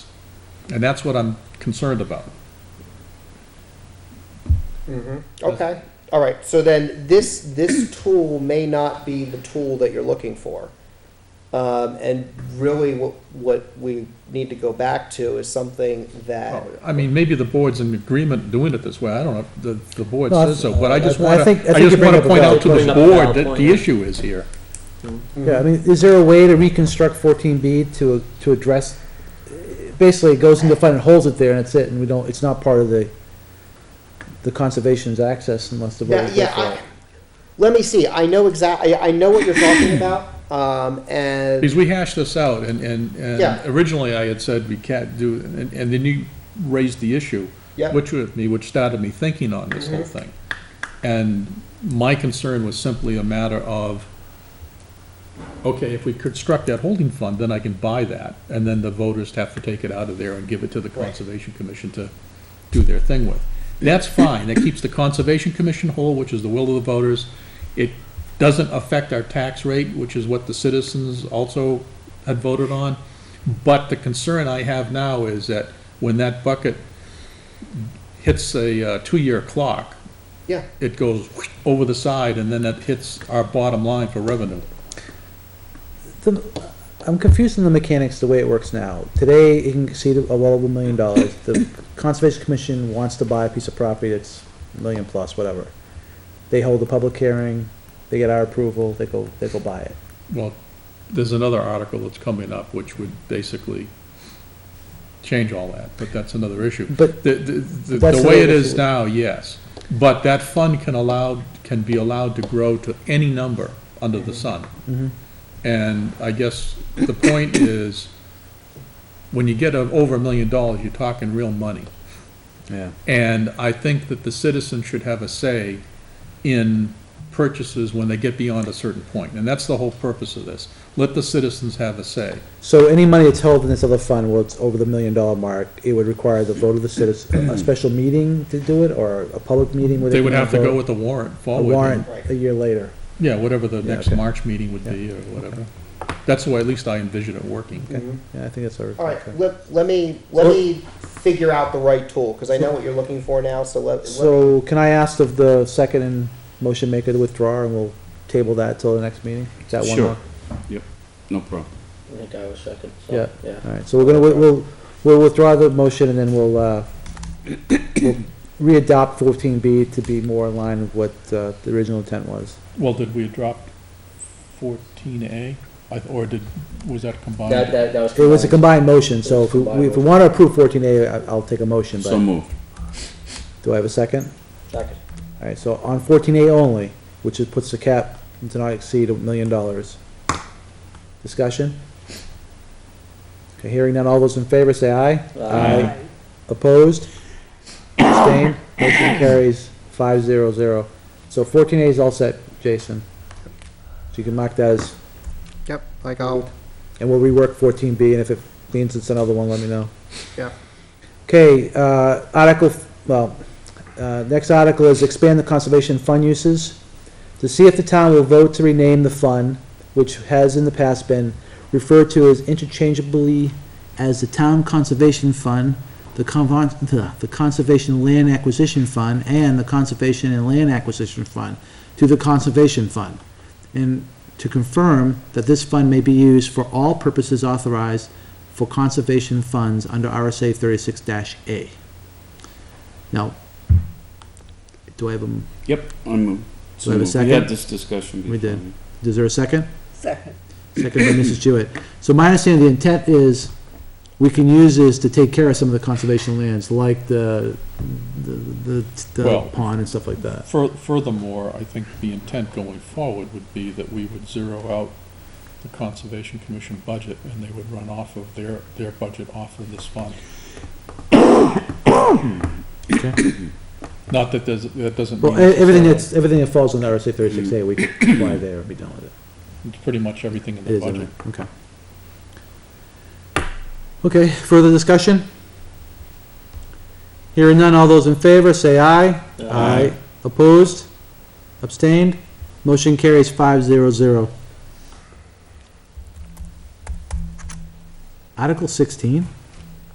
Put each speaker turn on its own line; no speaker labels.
And that's what I'm concerned about.
Okay, all right, so then this, this tool may not be the tool that you're looking for. Um, and really what, what we need to go back to is something that,
I mean, maybe the board's in agreement doing it this way, I don't know, if the, the board
No, I-
says so, but I just
I- I
wanna,
think- I
I
think you
just
bring
wanna
up a
point out
valid
to the
point. Bring up a
board
valid
that
point,
the
yeah.
issue is here.
Yeah, I mean, is there a way to reconstruct fourteen B to, to address, basically it goes into fund and holds it there and that's it, and we don't, it's not part of the, the conservation's access unless the
yeah,
voters go
yeah,
for
I,
it.
let me see, I know exact, I, I know what you're talking about, um, and,
Because we hashed this out, and, and,
Yeah.
and originally I had said we can't do, and, and then you raised the issue,
Yeah.
which with me, which started me thinking on this whole thing. And my concern was simply a matter of, okay, if we construct that holding fund, then I can buy that, and then the voters have to take it out of there and give it to the Conservation Commission to do their thing with. That's fine, that keeps the Conservation Commission whole, which is the will of the voters. It doesn't affect our tax rate, which is what the citizens also had voted on. But the concern I have now is that when that bucket hits a uh, two-year clock,
yeah.
it goes whoosh over the side, and then that hits our bottom line for revenue.
The- I'm confused in the mechanics, the way it works now. Today, it can exceed a well over a million dollars. The Conservation Commission wants to buy a piece of property that's a million plus, whatever. They hold a public hearing, they get our approval, they go, they go buy it.
Well, there's another article that's coming up, which would basically change all that, but that's another issue.
But-
The, the- the,
That's
the way it
another
is
issue.
now, yes, but that fund can allow, can be allowed to grow to any number under
Mm-hmm.
the sun. And I guess the point is, when you get a- over a million dollars, you're talking real money.
Yeah.
And I think that the citizens should have a say in purchases when they get beyond a certain point, and that's the whole purpose of this. Let the citizens have a say.
So any money that's held in this other fund, where it's over the million dollar mark, it would require the vote of the citizens, a special meeting to do it, or a public meeting where they
They would
can
have to go
vote?
with the warrant
A
forward.
warrant
Right.
a year later.
Yeah, whatever the
Yeah,
next
okay.
March meeting would be, or whatever. That's the way, at least I envision it working.
Okay, yeah, I think that's our.
Hmm? All right, let, let me, let me figure out the right tool, because I know what you're looking for now, so let, let me-
So can I ask of the second and motion maker to withdraw, and we'll table that till the next meeting? Is that one?
Sure.
more?
Yep, no problem.
I think I was second, so,
Yeah,
yeah.
all right, so we're gonna, we'll- we'll, we'll withdraw the motion and then we'll, uh, we'll re-adopt fourteen B to be more in line with what, uh, the original intent was.
Well, did we drop fourteen A, or did, was that combined?
That, that, that was.
It was a
combined.
combined motion, so if we,
Combined
if we wanna approve fourteen A, I, I'll take a motion,
So
but,
moved.
do I have a second?
Second.
All right, so on fourteen A only, which is, puts the cap to not exceed a million dollars. Discussion? Okay, hearing none, all those in favor say aye.
Aye.
Opposed? Abstained? Motion carries five zero zero. So fourteen A is all set, Jason. So you can mark that as,
Yep, like I'll,
and we'll rework fourteen B, and if it means it's another one, let me know.
yeah.
Okay, uh, article, well, uh, next article is expand the conservation fund uses. To see if the town will vote to rename the fund, which has in the past been referred to as interchangeably as the Town Conservation Fund, the Convon, the, the Conservation Land Acquisition Fund, and the Conservation and Land Acquisition Fund to the Conservation Fund. And to confirm that this fund may be used for all purposes authorized for conservation funds under RSA thirty-six A. Now, do I have a, m-
Yep, I moved.
Do I have a
So moved. We
second?
had this discussion before.
We did. is there a second?
Second.
Second by Mrs. Jewett. So my understanding, the intent is, we can use this to take care of some of the conservation lands, like the, the, the-
Well-
the pond and stuff like that.
Fur- Furthermore, I think the intent going forward would be that we would zero out the Conservation Commission budget, and they would run off of their, their budget off of this fund. Not that there's, that doesn't mean.
Well, e- everything that's, everything that falls under RSA thirty-six A, we can apply there and be done with it.
It's pretty much everything in
It
the
is, in
budget.
there, okay. Okay, further discussion? Hearing none, all those in favor, say aye. Aye. Opposed? Abstained? Motion carries five zero zero. Article sixteen?